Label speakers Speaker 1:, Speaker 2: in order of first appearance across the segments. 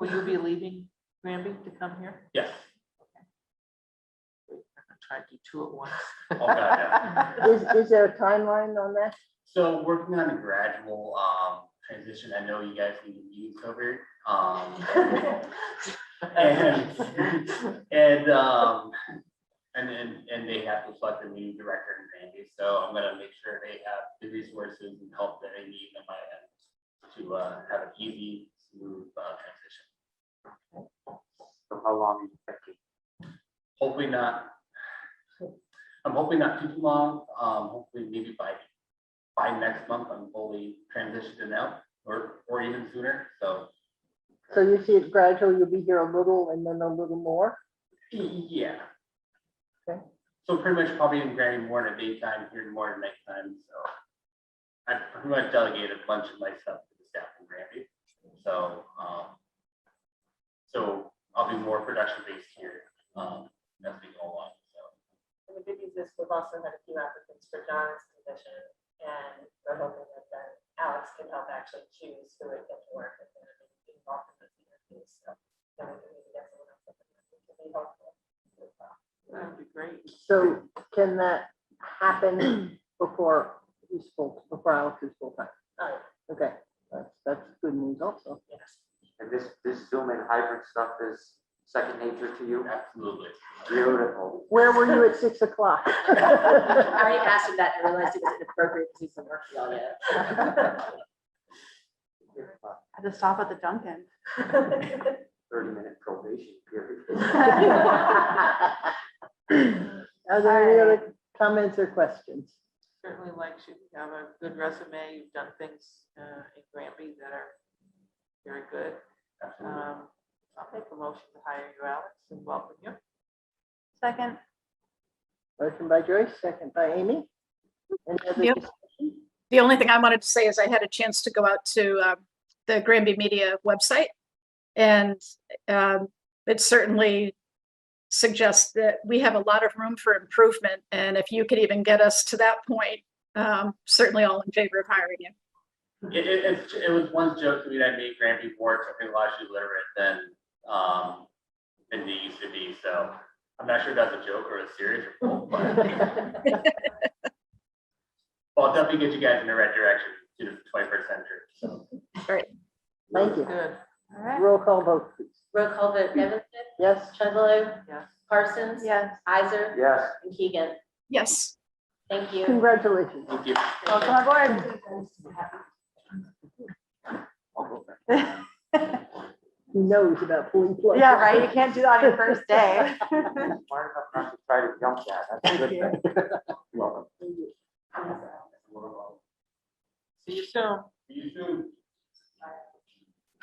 Speaker 1: Will you be leaving Granby to come here?
Speaker 2: Yeah.
Speaker 1: I'm gonna Try to do two at once.
Speaker 2: Oh, God, yeah.
Speaker 3: Is, is there a timeline on that?
Speaker 2: So working on a gradual um transition, I know you guys need to be covered. Um, and, and, um, and then, and they have to select a new director in Granby, so I'm gonna make sure they have the resources and help that they need in my end to uh have an easy, smooth uh transition.
Speaker 4: So how long is it taking?
Speaker 2: Hopefully not. I'm hoping not too long, um, hopefully maybe by, by next month, I'm fully transitioned and out, or, or even sooner, so.
Speaker 3: So you see it gradual, you'll be here a little and then a little more?
Speaker 2: E, Yeah.
Speaker 3: Okay.
Speaker 2: So pretty much probably in Granny more in the daytime, here in more at nighttime, so. I pretty much delegate a bunch of my stuff to the staff in Granby, so, um. So I'll be more production based here, um, as we go along, so.
Speaker 5: And the good news is we've also had a few applicants for John's position, and we're hoping that then Alex can help actually choose who would get to work with him and be involved in those interviews, so. Then we can maybe get someone else that can be helpful.
Speaker 1: That'd be great.
Speaker 3: So can that happen before he's full, before Alex is full time?
Speaker 5: Oh,
Speaker 3: Okay, that's, that's good news also.
Speaker 5: yes.
Speaker 4: And this, this Zoom and hybrid stuff is second nature to you?
Speaker 2: Absolutely.
Speaker 4: Beautiful.
Speaker 3: Where were you at six o'clock?
Speaker 5: I already asked him that and realized it was inappropriate to do some work on it.
Speaker 6: Had to stop at the Dunkin'.
Speaker 4: Thirty minute probation period.
Speaker 3: Are there any other comments or questions?
Speaker 1: Certainly like you to have a good resume. You've done things uh, in Granby that are very good.
Speaker 2: Absolutely.
Speaker 1: Um, I'll make a motion to hire you, Alex, and welcome you.
Speaker 6: Second,
Speaker 3: Motion by Joyce, second by Amy. Any other
Speaker 7: Yep.
Speaker 3: dis-
Speaker 7: The only thing I wanted to say is I had a chance to go out to uh, the Granby Media website. And um, it certainly suggests that we have a lot of room for improvement. And if you could even get us to that point, um, certainly all in favor of hiring you.
Speaker 2: It, it, it's- it was one joke to me that made Granby more technologically literate than, um, than they used to be, so. I'm not sure if that's a joke or a serious or both, but. Well, I'll definitely get you guys in the right direction to the twenty-first century, so.
Speaker 3: Thank you.
Speaker 1: Good,
Speaker 6: all right,
Speaker 3: Roll call vote, please.
Speaker 5: Roll call vote, Nevinson,
Speaker 3: Yes?
Speaker 5: Chesler,
Speaker 1: yes.
Speaker 5: Parsons.
Speaker 6: yes.
Speaker 5: Isaac,
Speaker 4: Yes.
Speaker 5: and Keegan.
Speaker 7: Yes.
Speaker 5: Thank you.
Speaker 3: Congratulations.
Speaker 2: Thank you.
Speaker 6: Welcome aboard.
Speaker 3: He knows about pulling plugs.
Speaker 6: Yeah, right, you can't do that on your first day.
Speaker 4: Smart enough not to try to jump that. That's a good thing. Welcome.
Speaker 1: See you soon.
Speaker 2: You too.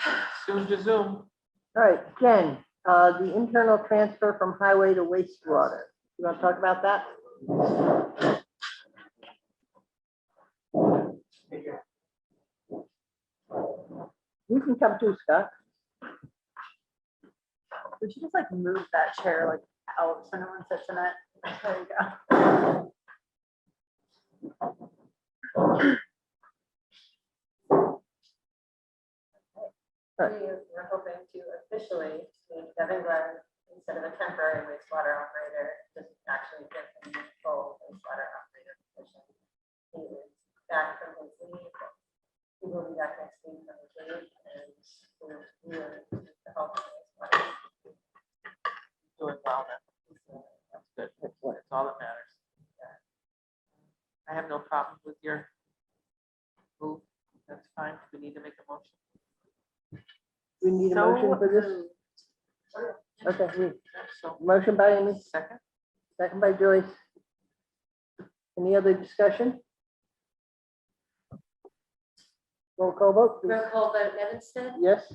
Speaker 1: Soon to Zoom.
Speaker 3: All right, Jen, uh, the internal transfer from highway to wastewater. You want to talk about that? You can come too, Scott.
Speaker 6: We should just like move that chair like out so no one sits in it. There you go.
Speaker 3: Right.
Speaker 5: We were hoping to officially make Devin Glenn, instead of a temporary wastewater operator, just actually get him the full wastewater operator position. He is back from his leave. He will be back next week from his leave and we're, we're the help. of wastewater.
Speaker 1: Doing well then. That's good.
Speaker 3: Excellent.
Speaker 1: That's all that matters. I have no problem with your move. That's fine. We need to make a motion.
Speaker 3: We need a
Speaker 6: So
Speaker 3: motion for this?
Speaker 6: moved.
Speaker 3: Okay, we-
Speaker 1: So,
Speaker 3: motion by Amy,
Speaker 1: second,
Speaker 3: second by Joyce. Any other discussion? Roll call vote, please.
Speaker 5: Roll call vote, Nevinson,
Speaker 3: Yes?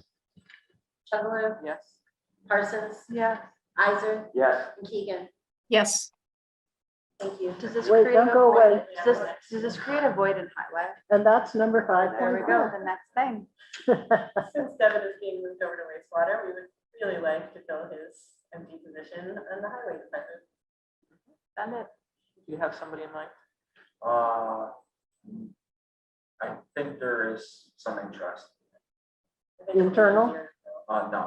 Speaker 5: Chugalo,
Speaker 1: yes.
Speaker 5: Parsons,
Speaker 6: Yeah.
Speaker 5: Isaac,
Speaker 4: Yes.
Speaker 5: and Keegan.
Speaker 7: Yes.
Speaker 5: Thank you.
Speaker 6: Does this
Speaker 3: Wait,
Speaker 6: create?
Speaker 3: don't
Speaker 6: a
Speaker 3: go
Speaker 6: void-
Speaker 3: away.
Speaker 6: Does this, does this create a void in highway?
Speaker 3: And that's number five.
Speaker 6: There we go, the next thing.
Speaker 5: Since Devin is being moved over to wastewater, we would really like to fill his empty position on the highway department.
Speaker 6: Send it.
Speaker 1: Do you have somebody in mind?
Speaker 8: Uh, I think there is some interest,
Speaker 5: I think it would be
Speaker 3: Internal?
Speaker 5: easier.
Speaker 8: uh, no,